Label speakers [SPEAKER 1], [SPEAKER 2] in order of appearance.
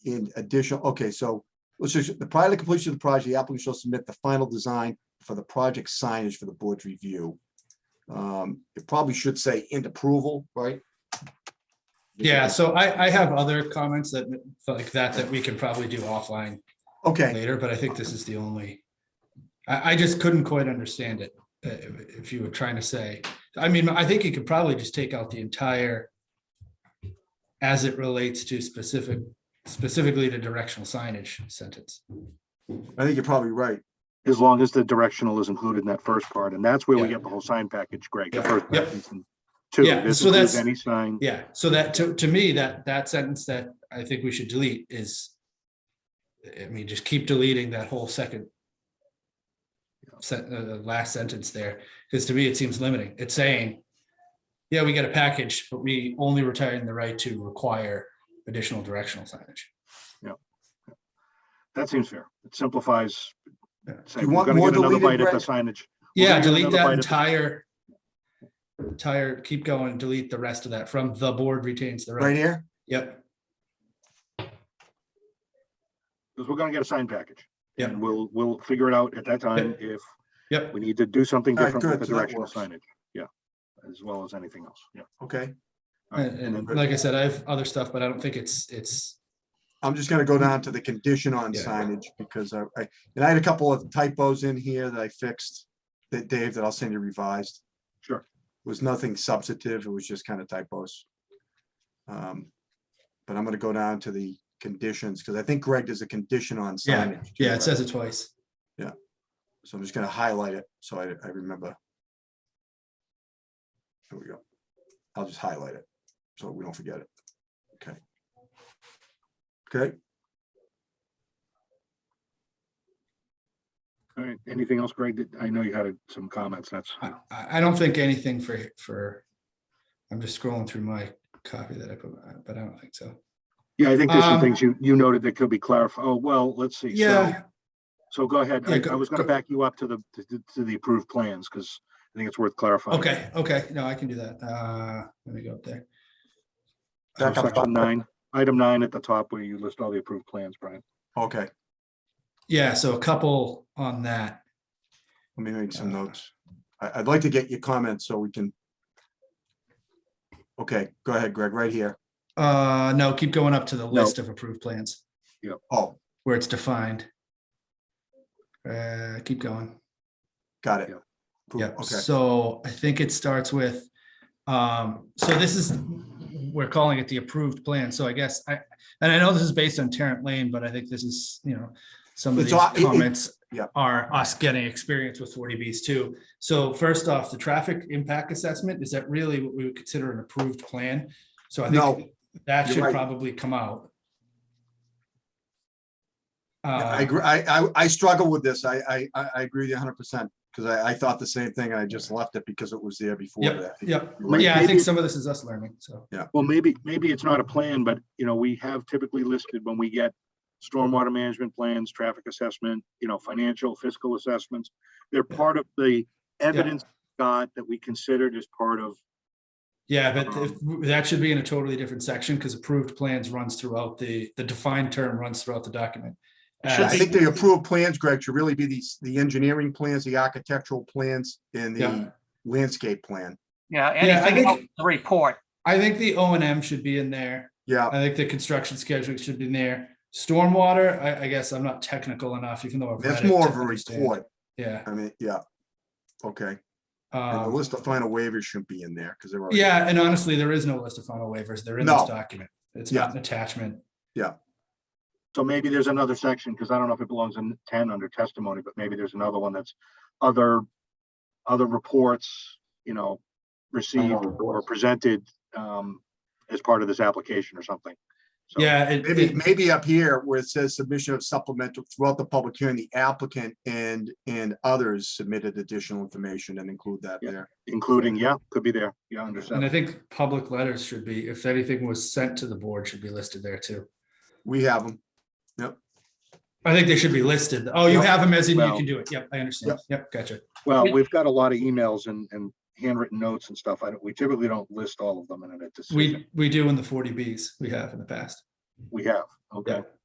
[SPEAKER 1] in addition, okay, so let's just, the prior to completion of the project, the applicant shall submit the final design for the project signage for the board's review. Um, it probably should say in approval, right?
[SPEAKER 2] Yeah, so I, I have other comments that, like that, that we can probably do offline
[SPEAKER 1] Okay,
[SPEAKER 2] later, but I think this is the only. I, I just couldn't quite understand it, uh, if if you were trying to say, I mean, I think you could probably just take out the entire as it relates to specific, specifically to directional signage sentence.
[SPEAKER 1] I think you're probably right.
[SPEAKER 3] As long as the directional is included in that first part, and that's where we
[SPEAKER 2] Yeah.
[SPEAKER 3] get the whole sign package, Greg. the
[SPEAKER 2] Yeah.
[SPEAKER 3] first
[SPEAKER 2] Yep.
[SPEAKER 3] sentence and Two,
[SPEAKER 2] Yeah,
[SPEAKER 3] this
[SPEAKER 2] so
[SPEAKER 3] includes
[SPEAKER 2] that's-
[SPEAKER 3] any sign,
[SPEAKER 2] Yeah, so that, to, to me, that, that sentence that I think we should delete is, I mean, just keep deleting that whole second sen- uh, the last sentence there, because to me, it seems limiting. It's saying, yeah, we get a package, but we only retain the right to require additional directional signage.
[SPEAKER 3] that seems fair. It simplifies.
[SPEAKER 2] Yeah.
[SPEAKER 3] Say,
[SPEAKER 1] You
[SPEAKER 3] we're
[SPEAKER 1] want
[SPEAKER 3] gonna
[SPEAKER 1] more
[SPEAKER 3] get another
[SPEAKER 1] deleted,
[SPEAKER 3] bite at the
[SPEAKER 1] Greg?
[SPEAKER 3] signage.
[SPEAKER 2] Yeah,
[SPEAKER 3] gonna get
[SPEAKER 2] delete
[SPEAKER 3] another
[SPEAKER 2] that
[SPEAKER 3] bite at the-
[SPEAKER 2] entire, entire, keep going, delete the rest of that from the board retains the
[SPEAKER 1] Right
[SPEAKER 2] right.
[SPEAKER 1] here?
[SPEAKER 2] Yep,
[SPEAKER 3] Because we're gonna get a sign package.
[SPEAKER 2] Yeah.
[SPEAKER 3] And we'll, we'll figure it out at that time if
[SPEAKER 2] yep,
[SPEAKER 3] we need to do something
[SPEAKER 1] All right, good,
[SPEAKER 3] different with the
[SPEAKER 1] so that
[SPEAKER 3] directional
[SPEAKER 1] works.
[SPEAKER 3] signage. Yeah, as well as anything else. Yeah.
[SPEAKER 1] Okay,
[SPEAKER 3] All right,
[SPEAKER 2] and, and
[SPEAKER 3] then-
[SPEAKER 2] like I said, I have other stuff, but I don't think it's, it's
[SPEAKER 1] I'm just gonna go down to the condition on
[SPEAKER 2] Mm. Yeah.
[SPEAKER 1] signage because I, I- and I had a couple of typos in here that I fixed. That Dave, that I'll send you revised.
[SPEAKER 3] Sure.
[SPEAKER 1] Was nothing substantive, it was just kind of typos. Um, But I'm gonna go down to the conditions, because I think Greg does a condition on signage. too,
[SPEAKER 2] Yeah,
[SPEAKER 1] right?
[SPEAKER 2] it says it twice.
[SPEAKER 1] So I'm just gonna highlight it, so I, I remember. There we go. I'll just highlight it, so we don't forget it. Okay. Okay,
[SPEAKER 3] All right, anything else, Greg? Did- I know you had some comments. That's,
[SPEAKER 2] I, I I don't think anything for, for, I'm just scrolling through my copy that I put, uh, but I don't think so.
[SPEAKER 3] yeah, I think there's some
[SPEAKER 2] Um,
[SPEAKER 3] things you, you noted that could be clarified. Oh, well, let's see. So-
[SPEAKER 2] Yeah,
[SPEAKER 3] So go ahead.
[SPEAKER 2] Yeah,
[SPEAKER 3] I,
[SPEAKER 2] go-
[SPEAKER 3] I was gonna
[SPEAKER 2] go-
[SPEAKER 3] back you up to the, to- to the approved plans, because I think it's worth clarifying.
[SPEAKER 2] okay, okay, no, I can do that. Uh, let me go up there.
[SPEAKER 3] So
[SPEAKER 1] Back up top.
[SPEAKER 3] Section nine, item nine at the top where you list all the approved plans, Brian.
[SPEAKER 1] okay,
[SPEAKER 2] Yeah, so a couple on that.
[SPEAKER 1] let me make some
[SPEAKER 2] Uh,
[SPEAKER 1] notes. I, I'd like to get your comments so we can. Okay, go ahead, Greg, right here.
[SPEAKER 2] Uh, no, keep going up to the list of approved plans
[SPEAKER 1] Oh,
[SPEAKER 2] where it's defined. Uh, keep going.
[SPEAKER 1] got it.
[SPEAKER 3] Yep.
[SPEAKER 1] Cool,
[SPEAKER 2] Yep,
[SPEAKER 1] Okay,
[SPEAKER 2] so I think it starts with, um, so this is, we're calling it the approved plan, so I guess I, and I know this is based on Tarrant Lane, but I think this is, you know, some of
[SPEAKER 1] It's
[SPEAKER 2] these
[SPEAKER 1] all- it- it-
[SPEAKER 2] comments
[SPEAKER 1] yeah.
[SPEAKER 2] are us getting experience with forty Bs too. So first off, the traffic impact assessment, is that really what we would consider an approved plan? So I
[SPEAKER 1] No,
[SPEAKER 2] think that
[SPEAKER 1] you're
[SPEAKER 2] should
[SPEAKER 1] right.
[SPEAKER 2] probably come out.
[SPEAKER 1] Yeah,
[SPEAKER 2] Uh,
[SPEAKER 1] I agree, I, I, I struggle with this. I, I, I I agree with you hundred percent, because I, I thought the same thing, and I just left it because it was there before.
[SPEAKER 2] Yep,
[SPEAKER 1] but I think
[SPEAKER 2] yep.
[SPEAKER 1] you're right.
[SPEAKER 2] Yeah, I
[SPEAKER 3] Maybe-
[SPEAKER 2] think some of this is us learning, so.
[SPEAKER 3] Well, maybe, maybe it's not a plan, but you know, we have typically listed when we get stormwater management plans, traffic assessment, you know, financial fiscal assessments. They're
[SPEAKER 2] Yeah.
[SPEAKER 3] part of the evidence got that we considered as part of,
[SPEAKER 2] Yeah, but if, that should be in a totally different section because approved plans runs throughout the, the defined term runs throughout the document. Uh,
[SPEAKER 1] I
[SPEAKER 2] As-
[SPEAKER 1] think the approved plans, Greg, should really be these, the engineering plans, the architectural plans, and
[SPEAKER 2] Yeah.
[SPEAKER 1] the landscape plan.
[SPEAKER 4] Yeah,
[SPEAKER 2] Yeah, I
[SPEAKER 4] anything else
[SPEAKER 2] think-
[SPEAKER 4] to report.
[SPEAKER 2] I think the O and M should be in there.
[SPEAKER 1] Yeah,
[SPEAKER 2] I think the construction schedule should be in there. Stormwater, I, I guess I'm not technical enough, even though. I've
[SPEAKER 1] that's
[SPEAKER 2] read it
[SPEAKER 1] more
[SPEAKER 2] to
[SPEAKER 1] of a
[SPEAKER 2] understand.
[SPEAKER 1] report.
[SPEAKER 2] Yeah.
[SPEAKER 1] I mean, yeah. Okay, and the
[SPEAKER 2] um,
[SPEAKER 1] list of final waivers shouldn't be in there, because they're. already-
[SPEAKER 2] Yeah, and honestly, there is no list of final waivers. They're in this
[SPEAKER 1] No.
[SPEAKER 2] document. It's not an attachment.
[SPEAKER 3] so maybe there's another section, because I don't know if it belongs in ten under testimony, but maybe there's another one that's other, other reports, you know, received or presented um, as part of this application or something. So-
[SPEAKER 2] Yeah. it-
[SPEAKER 1] Maybe,
[SPEAKER 2] it-
[SPEAKER 1] maybe up here where it says submission of supplemental throughout the public hearing, the applicant and, and others submitted additional information and include that
[SPEAKER 3] Yeah.
[SPEAKER 1] there.
[SPEAKER 3] Including, yeah, could be there.
[SPEAKER 2] And
[SPEAKER 3] Yeah,
[SPEAKER 2] I
[SPEAKER 3] understand.
[SPEAKER 2] think public letters should be, if anything was sent to the board, should be listed there too.
[SPEAKER 1] We have them.
[SPEAKER 2] I think they should be listed. Oh, you have them as in you
[SPEAKER 3] Well-
[SPEAKER 2] can do it. Yep, I understand. Yep, gotcha.
[SPEAKER 3] Well, we've got a lot of emails and, and handwritten notes and stuff. I don't, we typically don't list all of them in a decision.
[SPEAKER 2] We, we do in the forty Bs we have in the past.
[SPEAKER 3] we have, okay?